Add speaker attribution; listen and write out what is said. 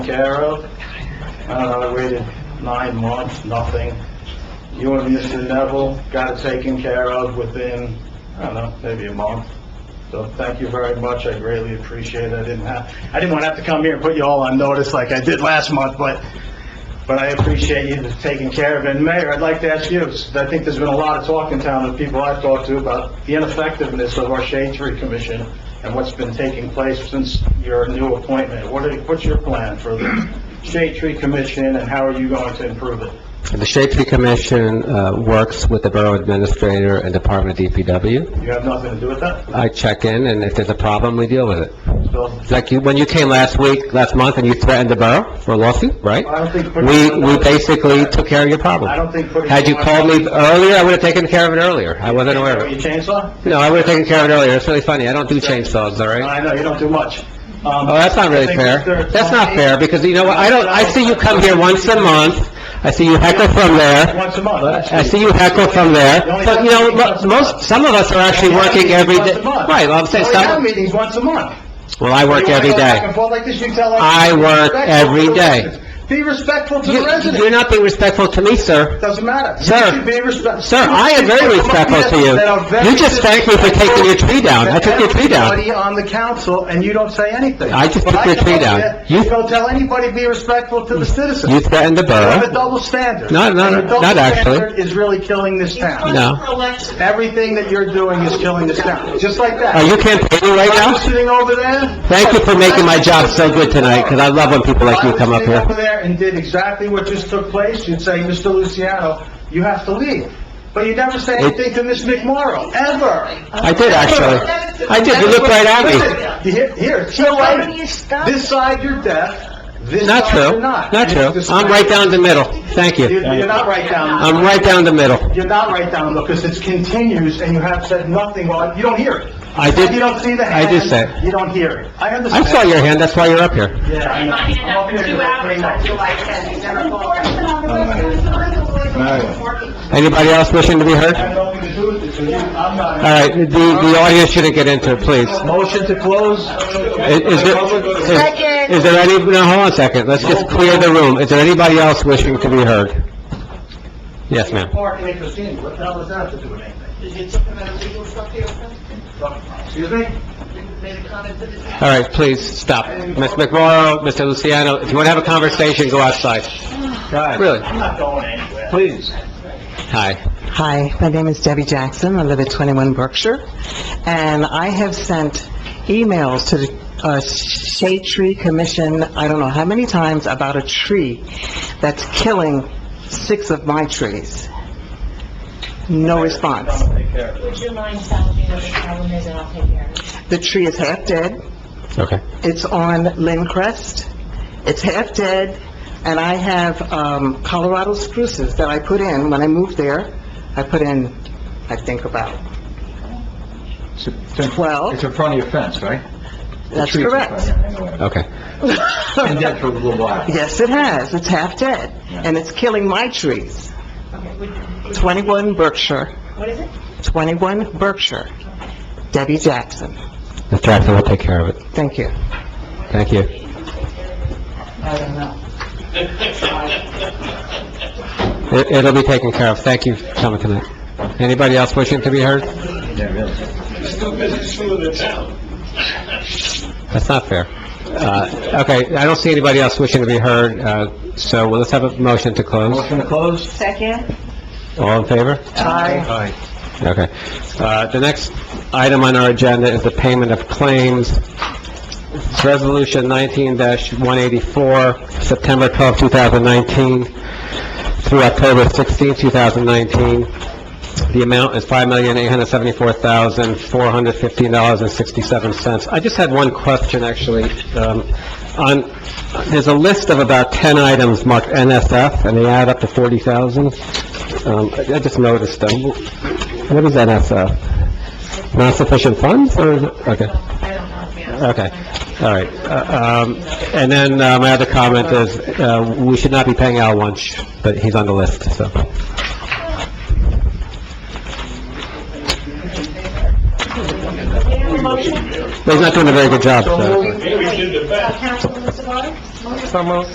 Speaker 1: Carol, uh, I waited nine months, nothing. You and Mr. Neville got it taken care of within, I don't know, maybe a month. So thank you very much, I greatly appreciate it. I didn't have, I didn't want to have to come here and put you all on notice like I did last month, but, but I appreciate you taking care of it. And Mayor, I'd like to ask you, I think there's been a lot of talk in town of people I've talked to about the ineffectiveness of our Shade Tree Commission and what's been taking place since your new appointment. What are, what's your plan for the Shade Tree Commission and how are you going to improve it?
Speaker 2: The Shade Tree Commission uh, works with the Borough Administrator and Department of DPW.
Speaker 1: You have nothing to do with that?
Speaker 2: I check in, and if there's a problem, we deal with it.
Speaker 1: So,
Speaker 2: Like you, when you came last week, last month, and you threatened the borough for a lawsuit, right?
Speaker 1: I don't think...
Speaker 2: We, we basically took care of your
Speaker 1: I
Speaker 2: problem.
Speaker 1: don't think putting...
Speaker 2: Had you called me earlier, I would have taken care of it earlier. I wasn't aware of it.
Speaker 1: Your chainsaw?
Speaker 2: No, I would have taken care of it earlier. It's really funny. I don't do chainsaws, all right?
Speaker 1: I know, you don't do much. Um,
Speaker 2: Oh, that's not really fair. That's not fair, because you know what? I don't, I see you come here once a month. I see you heckle from there.
Speaker 1: Once a month, that's
Speaker 2: I see you heckle from there, but you know, mo- most, some of us are actually working every day. Right, well, I'm saying,
Speaker 1: We Oh, have
Speaker 2: some,
Speaker 1: meetings once a month.
Speaker 2: well, I work
Speaker 1: You wanna
Speaker 2: every
Speaker 1: go back and
Speaker 2: day.
Speaker 1: forth like this, you tell us-
Speaker 2: I work every
Speaker 1: Be respectful to the residents. Be respectful to
Speaker 2: day.
Speaker 1: the
Speaker 2: You-
Speaker 1: residents.
Speaker 2: You're not being respectful to me, sir.
Speaker 1: Doesn't matter. You
Speaker 2: Sir.
Speaker 1: should be respect-
Speaker 2: Sir, I am very respectful to you.
Speaker 1: That are very
Speaker 2: You just thanked me for taking your tree down. I took your tree down.
Speaker 1: Everybody on the council, and you don't say anything.
Speaker 2: I just
Speaker 1: When
Speaker 2: took your
Speaker 1: come
Speaker 2: tree
Speaker 1: up
Speaker 2: down.
Speaker 1: here,
Speaker 2: You-
Speaker 1: You don't tell anybody, be respectful to the citizens.
Speaker 2: You threatened the
Speaker 1: You have a
Speaker 2: borough.
Speaker 1: double standard.
Speaker 2: No, no,
Speaker 1: And your
Speaker 2: no,
Speaker 1: double
Speaker 2: not actually.
Speaker 1: standard is really killing this town.
Speaker 2: No.
Speaker 1: Everything that you're doing is killing this town, just like that.
Speaker 2: Are you campaigning right
Speaker 1: If I was
Speaker 2: now?
Speaker 1: sitting over there...
Speaker 2: Thank you for making my job so good tonight, because I love when people like you come up
Speaker 1: If I was sitting over
Speaker 2: here.
Speaker 1: there and did exactly what just took place, you'd say, "Mr. Luciano, you have to leave." But you never say anything to Ms. McMorro, ever.
Speaker 2: I did, actually. I did, you looked right at me.
Speaker 1: Listen, you hear- Here, it's your
Speaker 3: Why do
Speaker 1: right.
Speaker 3: you stop?
Speaker 1: This side you're deaf, this
Speaker 2: Not
Speaker 1: side
Speaker 2: true,
Speaker 1: you're not.
Speaker 2: not
Speaker 1: You're
Speaker 2: true.
Speaker 1: just-
Speaker 2: I'm right down the middle. Thank
Speaker 1: You-
Speaker 2: you.
Speaker 1: You're not right down,
Speaker 2: I'm right down the middle.
Speaker 1: you're not right down, because it continues and you have said nothing, well, you don't hear it.
Speaker 2: I did-
Speaker 1: You don't see the
Speaker 2: I
Speaker 1: hand.
Speaker 2: did say it.
Speaker 1: You don't hear it. I
Speaker 2: I
Speaker 1: understand.
Speaker 2: saw your hand, that's why you're up here.
Speaker 1: Yeah, I know.
Speaker 4: Mine
Speaker 1: I'm up here
Speaker 4: is two
Speaker 1: for
Speaker 4: hours
Speaker 1: three
Speaker 4: on
Speaker 1: months.
Speaker 4: July 10th, you never called.
Speaker 2: Anybody else wishing to be heard?
Speaker 1: I don't think to do with it, so you- I'm not-
Speaker 2: All right, the, the audience shouldn't get into it, please.
Speaker 1: Motion to close?
Speaker 2: Is, is there, is- is there any, no, hold on a second, let's just clear the room. Is there anybody else wishing to be heard? Yes, ma'am.
Speaker 1: Parking in Casino, what the hell does that have to do with anything? Excuse me?
Speaker 2: All right, please, stop. Ms. McMorro, Mr. Luciano, if you want to have a conversation, go outside. Really?
Speaker 1: I'm not going anywhere.
Speaker 2: Please. Hi.
Speaker 5: Hi, my name is Debbie Jackson. I live at 21 Berkshire, and I have sent emails to the uh, Shade Tree Commission, I don't know how many times, about a tree that's killing six of my trees. No response.
Speaker 3: Would you mind telling me what the problem is, and I'll take care of it?
Speaker 5: The tree is half dead.
Speaker 2: Okay.
Speaker 5: It's on Lincrest. It's half dead, and I have um, Colorado spruces that I put in when I moved there. I put in, I think about Well-
Speaker 6: It's in front of your fence, right?
Speaker 5: That's
Speaker 6: Trees in front,
Speaker 5: correct.
Speaker 6: yeah, I know it.
Speaker 2: Okay.
Speaker 6: Been dead for a little while.
Speaker 5: Yes, it has. It's half dead, and it's killing my trees.
Speaker 3: Okay, would- would-
Speaker 5: 21 Berkshire,
Speaker 3: What is it?
Speaker 5: 21 Berkshire. Debbie Jackson.
Speaker 2: Mr. Jackson will take care of it.
Speaker 5: Thank you.
Speaker 2: Thank you.
Speaker 3: I don't know.
Speaker 2: It, it'll be taken care of. Thank you for coming tonight. Anybody else wishing to be heard?
Speaker 6: Yeah, really.
Speaker 2: That's not fair. Uh, okay, I don't see anybody else wishing to be heard, uh, so well, let's have a motion to close.
Speaker 6: Motion to close?
Speaker 3: Second?
Speaker 2: All in favor?
Speaker 5: Aye.
Speaker 2: Okay. Uh, the next item on our agenda is the payment of claims. It's Resolution nineteen one eighty-four, September twelfth, two thousand nineteen, through October sixteenth, two thousand nineteen. The amount is five million, eight hundred seventy-four thousand, four hundred fifteen dollars and sixty-seven cents. I just had one question, actually. Um, on, there's a list of about ten items marked NSF, and they add up to forty thousand. Um, I I just noticed them. What is NSF? Not sufficient funds, or is it, okay,
Speaker 3: I don't know, yeah.
Speaker 2: okay, all right. Uh, um, And then uh, my other comment is, uh, we should not be paying Al Wunsch, but he's on the list, so. But He's not doing a very good job, so.
Speaker 3: Uh, Councilman Savari?
Speaker 5: So moved.